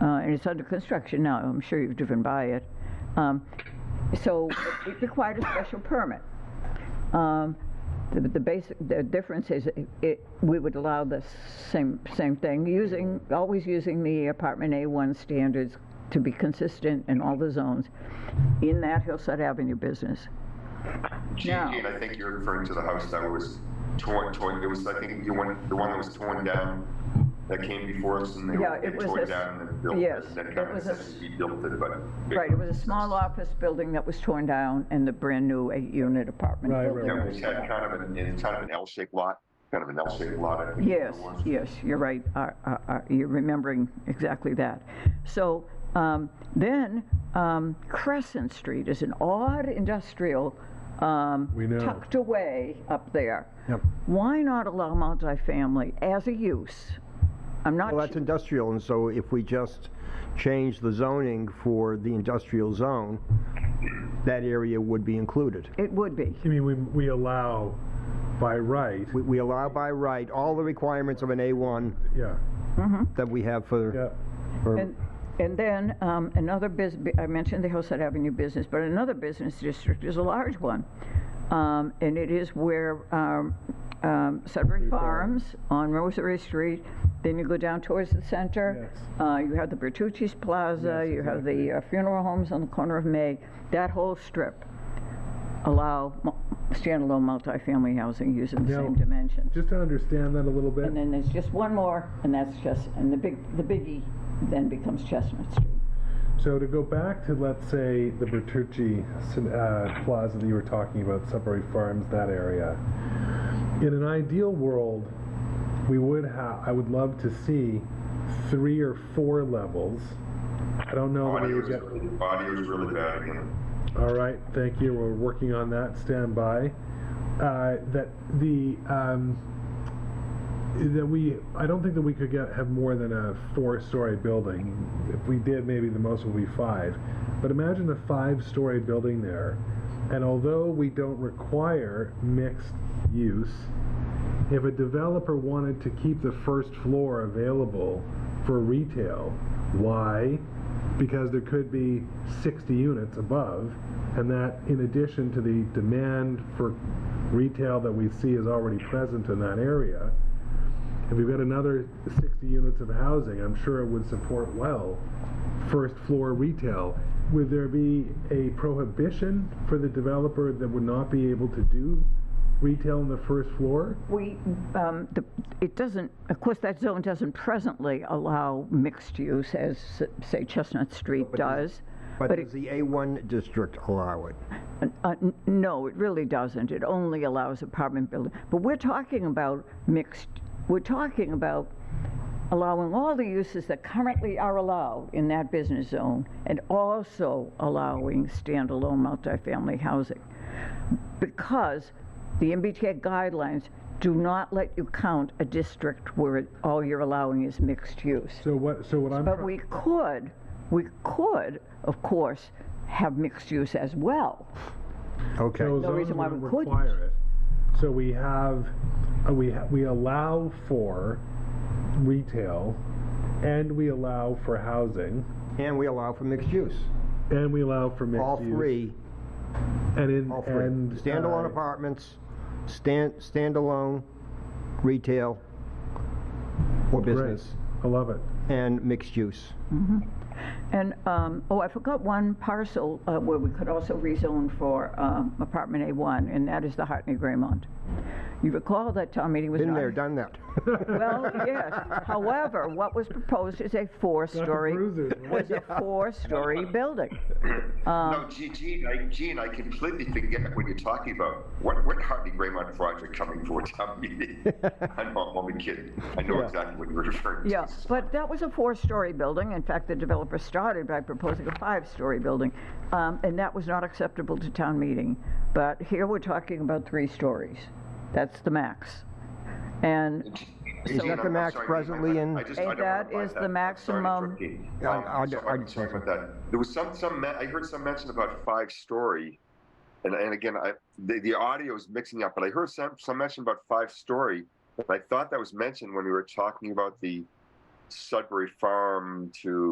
Uh, and it's under construction now, I'm sure you've driven by it. Um, So it required a special permit. Um, The, the basic, the difference is it- it, we would allow the same, same thing, using, always using the apartment A1 standards to be consistent in all the zones in that Hillside Avenue business. No. Jean, I think you're referring to the house that was torn, torn, it was, I think, the one, the one that was torn down, that came before us, and they Yeah, were, it they was tore a it s- down and then built yes, it, it then kind was of a said we built it, but. Right, it was a small office building that was torn down and the brand-new eight-unit apartment Right, right, building. Yeah, right. we had kind of an, it's kind of an L-shaped lot, kind of an L-shaped lot. I think it Yes, was. yes, you're right. Uh, uh, uh, You're remembering exactly that. So um, then um, Crescent Street is an odd industrial um, We know. tucked away up there. Yep. Why not allow multifamily as a use? I'm not, Well, that's su- industrial, and so if we just change the zoning for the industrial zone, that area would be included. it would be. I mean, we, we allow by right, We- We allow by right all the requirements of an A1 yeah, that we have yeah. for, for And, and then um, another bus, I mentioned the Hillside Avenue business, but another business district is a large one. Um, And it is where um, um, Sudbury Farms on Rosary Street, then you go down towards the center. Yes. uh, You have the Bertucci's Plaza, Yes, you have exactly. the uh, funeral homes on the corner of May, that whole strip. Allow mu- standalone multifamily housing using the Now- same dimensions. Just to understand that a little bit, And then there's just one more, and that's just, and the big, the biggie then becomes Chestnut Street. so to go back to, let's say, the Bertucci uh, Plaza that you were talking about, Sudbury Farms, that area. In an ideal world, we would have, I would love to see three or four levels. Oh, I don't know that we Audio would is, get, really- audio is really bad again. all right, thank you, we're working on that, stand by. Uh, that the, um, that we, I don't think that we could get, have more than a four-story building. If we did, maybe the most would be five. But imagine a five-story building there. And although we don't require mixed use, if a developer wanted to keep the first floor available for retail, why? Because there could be 60 units above, and that in addition to the demand for retail that we see is already present in that area, if we've got another 60 units of housing, I'm sure it would support well first floor retail. Would there be a prohibition for the developer that would not be able to do retail on the first floor? We, um, the, it doesn't, of course, that zone doesn't presently allow mixed use as, say, Chestnut Street does. But But does the A1 district allow it? N- uh, n- No, it really doesn't. It only allows apartment building. But we're talking about mixed, we're talking about allowing all the uses that currently are allowed in that business zone and also allowing standalone multifamily housing. Because the MBTA guidelines do not let you count a district where it- all you're allowing is mixed use. So what, so what I'm. But try- we could, we could, of course, have mixed use as well. Okay. So No zones reason why don't we couldn't. require it. So we have, uh, we, ha- we allow for retail, and we allow for housing, And we allow for mixed use. and we allow for mixed use. All three, And in, all three. and. Standalone uh, apartments, stand, standalone retail or great. business, I love it. and mixed use. And, um, oh, I forgot one parcel uh, where we could also rezone for um, apartment A1, and that is the Hartney Graymont. You recall that town meeting was Been not- there, done that. Well, yes. However, what was proposed is a four-story, bruises, was a four-story building. No, Um, Gee- Gene, I, Gene, I completely forget what you're talking about. What, what Hardy Graymont project coming for a town meeting? I know, I'm only kidding. I know exactly what you're referring to. Yeah, but that was a four-story building. In fact, the developer started by proposing a five-story building, um, and that was not acceptable to town meeting. But here we're talking about three stories. That's the max. And Gene, that the I'm- I'm max sorry, presently I- in- I just- I And don't wanna that buy is the that. I'm sorry, maximum- Brookie. I- Um, I- I'm sorry I- I'm sorry about that. There was some, some, me- I heard some mention about five-story. And, and again, I, the, the audio is mixing up, but I heard some, some mention about five-story. And I thought that was mentioned when we were talking about the Sudbury Farm to